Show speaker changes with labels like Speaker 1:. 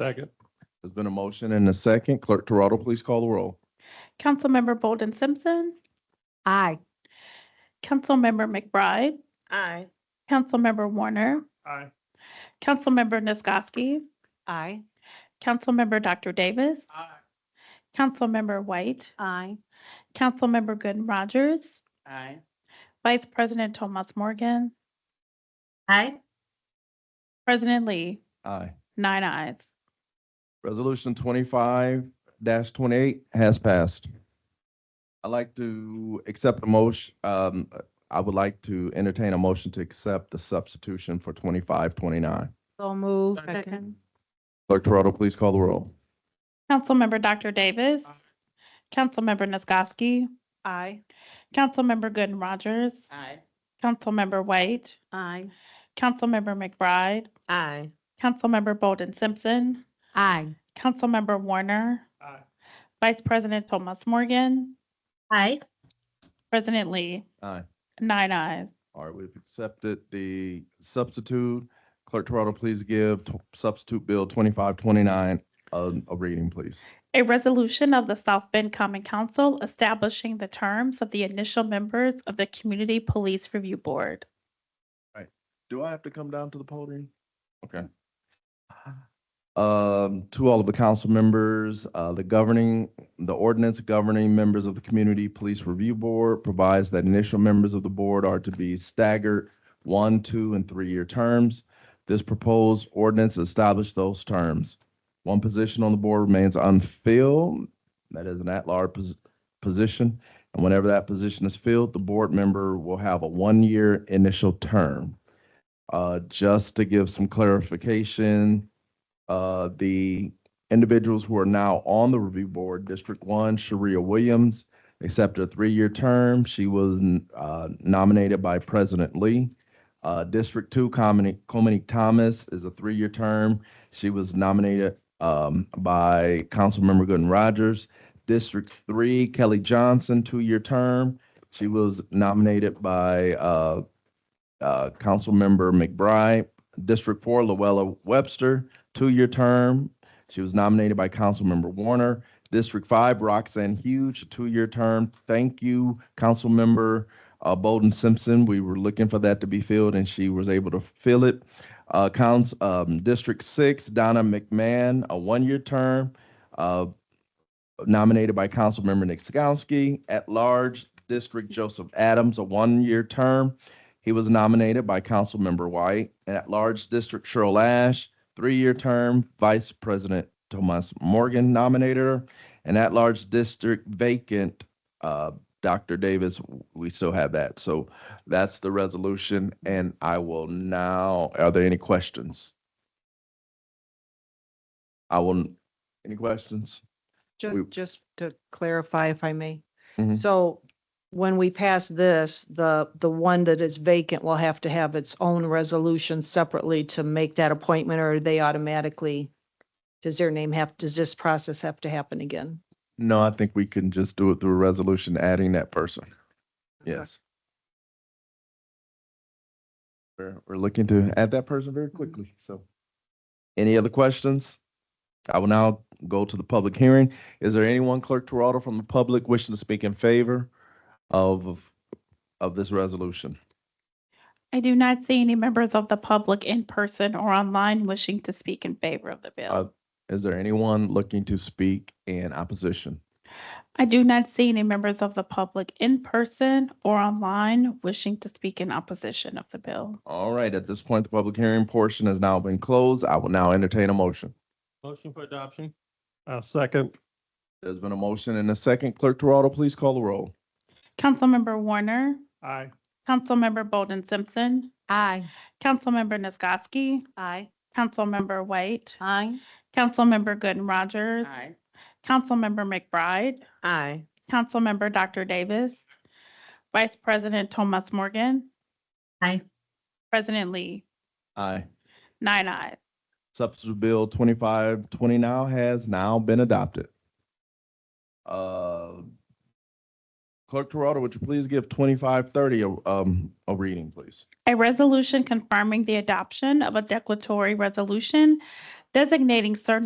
Speaker 1: Second.
Speaker 2: There's been a motion and a second. Clerk Toronto, please call the roll.
Speaker 3: Councilmember Bolden Simpson. Aye. Councilmember McBride.
Speaker 4: Aye.
Speaker 3: Councilmember Warner.
Speaker 1: Aye.
Speaker 3: Councilmember Nisgowsky.
Speaker 4: Aye.
Speaker 3: Councilmember Dr. Davis.
Speaker 1: Aye.
Speaker 3: Councilmember White.
Speaker 4: Aye.
Speaker 3: Councilmember Gooden Rogers.
Speaker 4: Aye.
Speaker 3: Vice President Tomas Morgan.
Speaker 4: Aye.
Speaker 3: President Lee,
Speaker 2: Aye.
Speaker 3: nine ayes.
Speaker 2: Resolution twenty-five twenty-eight has passed. I'd like to accept a motion, um, I would like to entertain a motion to accept the substitution for twenty-five twenty-nine.
Speaker 4: So moved.
Speaker 1: Second.
Speaker 2: Clerk Toronto, please call the roll.
Speaker 3: Councilmember Dr. Davis.
Speaker 1: Aye.
Speaker 3: Councilmember Nisgowsky.
Speaker 4: Aye.
Speaker 3: Councilmember Gooden Rogers.
Speaker 4: Aye.
Speaker 3: Councilmember White.
Speaker 4: Aye.
Speaker 3: Councilmember McBride.
Speaker 4: Aye.
Speaker 3: Councilmember Bolden Simpson.
Speaker 4: Aye.
Speaker 3: Councilmember Warner.
Speaker 1: Aye.
Speaker 3: Vice President Thomas Morgan.
Speaker 4: Aye.
Speaker 3: President Lee.
Speaker 2: Aye.
Speaker 3: Nine ayes.
Speaker 2: All right, we've accepted the substitute. Clerk Toronto, please give t- substitute bill twenty-five twenty-nine a, a reading, please.
Speaker 3: A resolution of the South Bend Common Council establishing the terms of the initial members of the Community Police Review Board.
Speaker 2: Do I have to come down to the podium? Okay. Um, to all of the council members, uh, the governing, the ordinance governing members of the Community Police Review Board provides that initial members of the board are to be staggered one, two, and three-year terms. This proposed ordinance established those terms. One position on the board remains unfilled, that is an at-large pos- position. And whenever that position is filled, the board member will have a one-year initial term. Uh, just to give some clarification, uh, the individuals who are now on the review board, District One, Sharia Williams, accepted a three-year term. She was, uh, nominated by President Lee. Uh, District Two, Comini, Comini Thomas is a three-year term. She was nominated, um, by Councilmember Gooden Rogers. District Three, Kelly Johnson, two-year term. She was nominated by, uh, uh, Councilmember McBride. District Four, Luella Webster, two-year term. She was nominated by Councilmember Warner. District Five, Roxanne Huge, a two-year term. Thank you, Councilmember uh, Bolden Simpson. We were looking for that to be filled, and she was able to fill it. Uh, Counts, um, District Six, Donna McMahon, a one-year term, uh, nominated by Councilmember Nick Skowski. At large, District Joseph Adams, a one-year term. He was nominated by Councilmember White. And at large district, Cheryl Ash, three-year term, Vice President Thomas Morgan nominated her. And at large district vacant, uh, Dr. Davis, we still have that. So that's the resolution. And I will now, are there any questions? I will, any questions? We-
Speaker 5: Just, just to clarify, if I may.
Speaker 2: Mhm.
Speaker 5: So when we pass this, the, the one that is vacant will have to have its own resolution separately to make that appointment, or they automatically, does their name have, does this process have to happen again?
Speaker 2: No, I think we can just do it through a resolution adding that person. Yes. We're, we're looking to add that person very quickly, so. Any other questions? I will now go to the public hearing. Is there anyone, Clerk Toronto, from the public wishing to speak in favor of, of this resolution?
Speaker 3: I do not see any members of the public in person or online wishing to speak in favor of the
Speaker 2: Uh,
Speaker 3: bill.
Speaker 2: Is there anyone looking to speak in opposition?
Speaker 3: I do not see any members of the public in person or online wishing to speak in opposition of the bill.
Speaker 2: All right, at this point, the public hearing portion has now been closed. I will now entertain a motion.
Speaker 1: Motion for adoption. Uh, second.
Speaker 2: There's been a motion and a second. Clerk Toronto, please call the roll.
Speaker 3: Councilmember Warner,
Speaker 1: Aye.
Speaker 3: Councilmember Bolden Simpson,
Speaker 4: Aye.
Speaker 3: Councilmember Nisgowsky,
Speaker 4: Aye.
Speaker 3: Councilmember White,
Speaker 5: Aye.
Speaker 3: Councilmember Gooden Rogers, Councilmember McBride,
Speaker 4: Aye.
Speaker 3: Councilmember Dr. Davis, Vice President Thomas Morgan.
Speaker 4: Aye.
Speaker 3: President Lee,
Speaker 2: Aye.
Speaker 3: nine ayes.
Speaker 2: Substitute Bill twenty-five twenty now has now been adopted. Uh, Clerk Toronto, would you please give twenty-five thirty a, um, a reading, please?
Speaker 3: A resolution confirming the adoption of a declaratory resolution designating certain